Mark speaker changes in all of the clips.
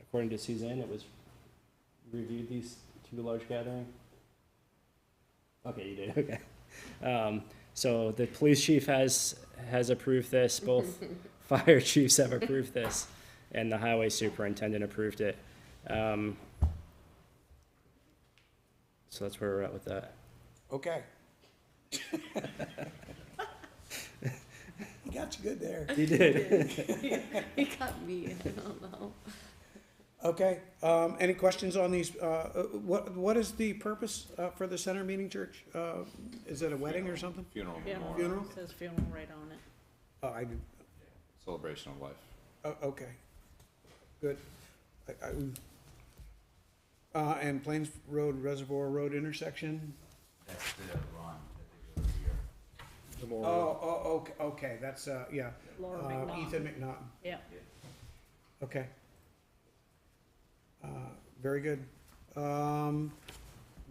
Speaker 1: according to Suzanne, it was reviewed these two large gathering? Okay, you did, okay. Um, so the police chief has, has approved this, both fire chiefs have approved this, and the highway superintendent approved it. Um, so that's where we're at with that.
Speaker 2: Okay. You got you good there.
Speaker 1: You did.
Speaker 3: He got me, I don't know.
Speaker 2: Okay, um, any questions on these, uh, uh, what, what is the purpose, uh, for the center meeting church? Uh, is it a wedding or something?
Speaker 4: Funeral
Speaker 5: Funeral.
Speaker 4: memorial,
Speaker 2: Funeral?
Speaker 5: Says funeral right on it.
Speaker 2: Oh, I,
Speaker 4: celebration of life.
Speaker 2: oh, okay, good. I, I, uh, and Plains Road Reservoir Road intersection?
Speaker 6: That's the run that they go here.
Speaker 2: Oh, oh, okay, okay, that's, uh, yeah.
Speaker 5: Laura
Speaker 2: Uh,
Speaker 5: McNaught.
Speaker 2: Ethan McNaughton.
Speaker 5: Yeah,
Speaker 2: Okay. Uh, Very good. Um,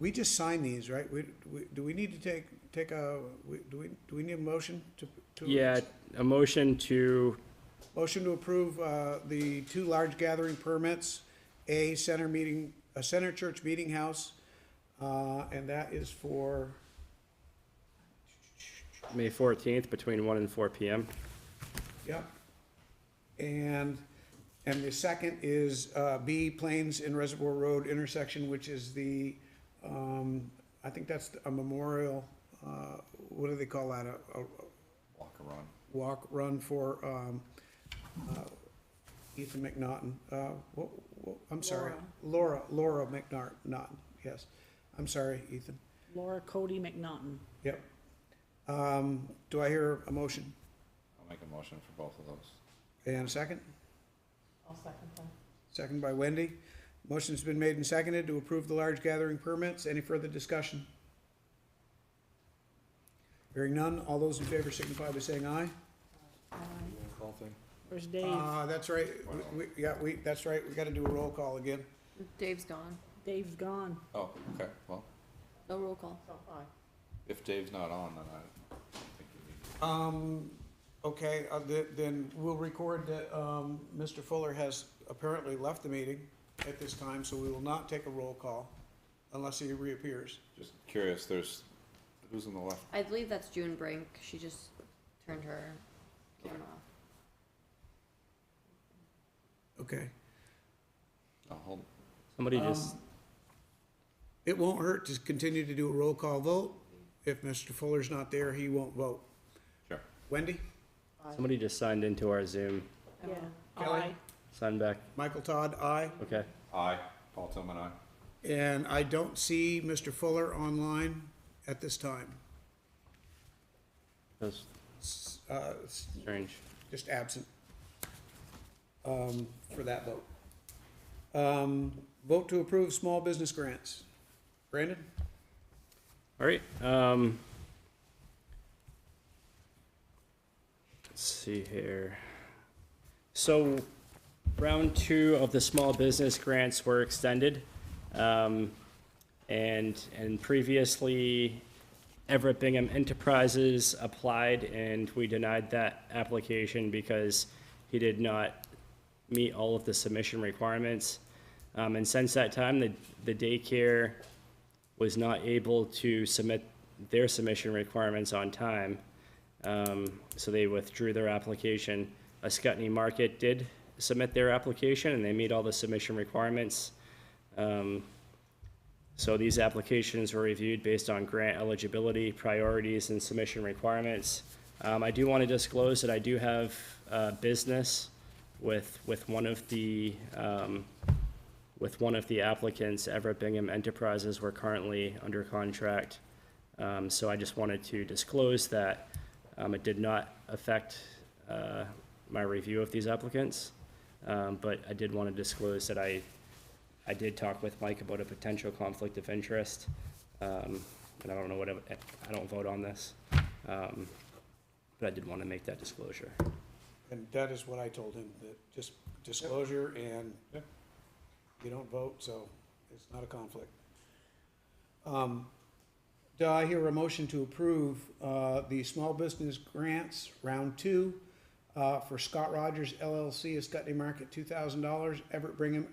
Speaker 2: We just signed these, right? We, we- do we need to take, take a, we- do we, do we need a motion to? to-
Speaker 1: Yeah, a motion to,
Speaker 2: Motion to approve uh, the two large gathering permits, a center meeting, a center church meeting house, uh, and that is for,
Speaker 1: May fourteenth, between one and four PM.
Speaker 2: yep. And, and the second is uh, B Plains and Reservoir Road intersection, which is the, um, I think that's a memorial, uh, what do they call that? A- a- a-
Speaker 4: Walk and run.
Speaker 2: walk, run for um, uh, Ethan McNaughton. Uh, wha- wha- I'm sorry, Laura, Laura McNaughton, yes. I'm sorry, Ethan.
Speaker 5: Laura Cody McNaughton.
Speaker 2: Yep. Um, Do I hear a motion
Speaker 4: I'll make a motion for both of those.
Speaker 2: and a second?
Speaker 5: I'll second that.
Speaker 2: Second by Wendy. Motion's been made and seconded to approve the large gathering permits. Any further discussion? Hearing none, all those in favor signify by saying aye.
Speaker 5: Where's Dave?
Speaker 2: Uh, That's right, We- we- yeah, we, that's right, we gotta do a roll call again.
Speaker 3: Dave's gone,
Speaker 5: Dave's gone.
Speaker 4: Oh, okay, well,
Speaker 3: no roll call.
Speaker 4: if Dave's not on, then I think we need to.
Speaker 2: Um, okay, uh, th- then we'll record that, um, Mr. Fuller has apparently left the meeting at this time, so we will not take a roll call unless he reappears.
Speaker 4: Just curious, there's, who's on the left?
Speaker 3: I believe that's June Brink, she just turned her camera off.
Speaker 2: Okay.
Speaker 4: Oh, hold,
Speaker 1: Somebody just,
Speaker 2: It won't hurt to continue to do a roll call vote. If Mr. Fuller's not there, he won't vote.
Speaker 4: sure.
Speaker 2: Wendy?
Speaker 1: somebody just signed into our Zoom.
Speaker 3: I don't
Speaker 5: Yeah.
Speaker 3: know.
Speaker 2: Kelly?
Speaker 5: Aye.
Speaker 1: Sign back,
Speaker 2: Michael Todd, aye.
Speaker 1: okay.
Speaker 4: Aye, Paul Tillman, aye.
Speaker 2: And I don't see Mr. Fuller online at this time.
Speaker 1: That's
Speaker 2: S- Uh, s-
Speaker 1: strange.
Speaker 2: just absent um, for that vote. Um, Vote to approve small business grants. Brandon?
Speaker 1: All right, um. Let's see here. So, round two of the small business grants were extended. Um, and, and previously, Everett Bingham Enterprises applied and we denied that application because he did not meet all of the submission requirements. Um, and since that time, the, the daycare was not able to submit their submission requirements on time. Um, so they withdrew their application. Ascutney Market did submit their application and they meet all the submission requirements. Um, so these applications were reviewed based on grant eligibility, priorities, and submission requirements. Um, I do want to disclose that I do have, uh, business with, with one of the, um, with one of the applicants, Everett Bingham Enterprises, we're currently under contract. Um, so I just wanted to disclose that, um, it did not affect, uh, my review of these applicants. Um, but I did want to disclose that I, I did talk with Mike about a potential conflict of interest. Um, and I don't know what, I I don't vote on this. Um, but I did want to make that disclosure.
Speaker 2: And that is what I told him, that just disclosure and
Speaker 4: Yep.
Speaker 2: you don't vote, so it's not a conflict. Um, Do I hear a motion to approve uh, the small business grants, round two, uh, for Scott Rogers LLC, Escutney Market, $2,000, Everett Brigham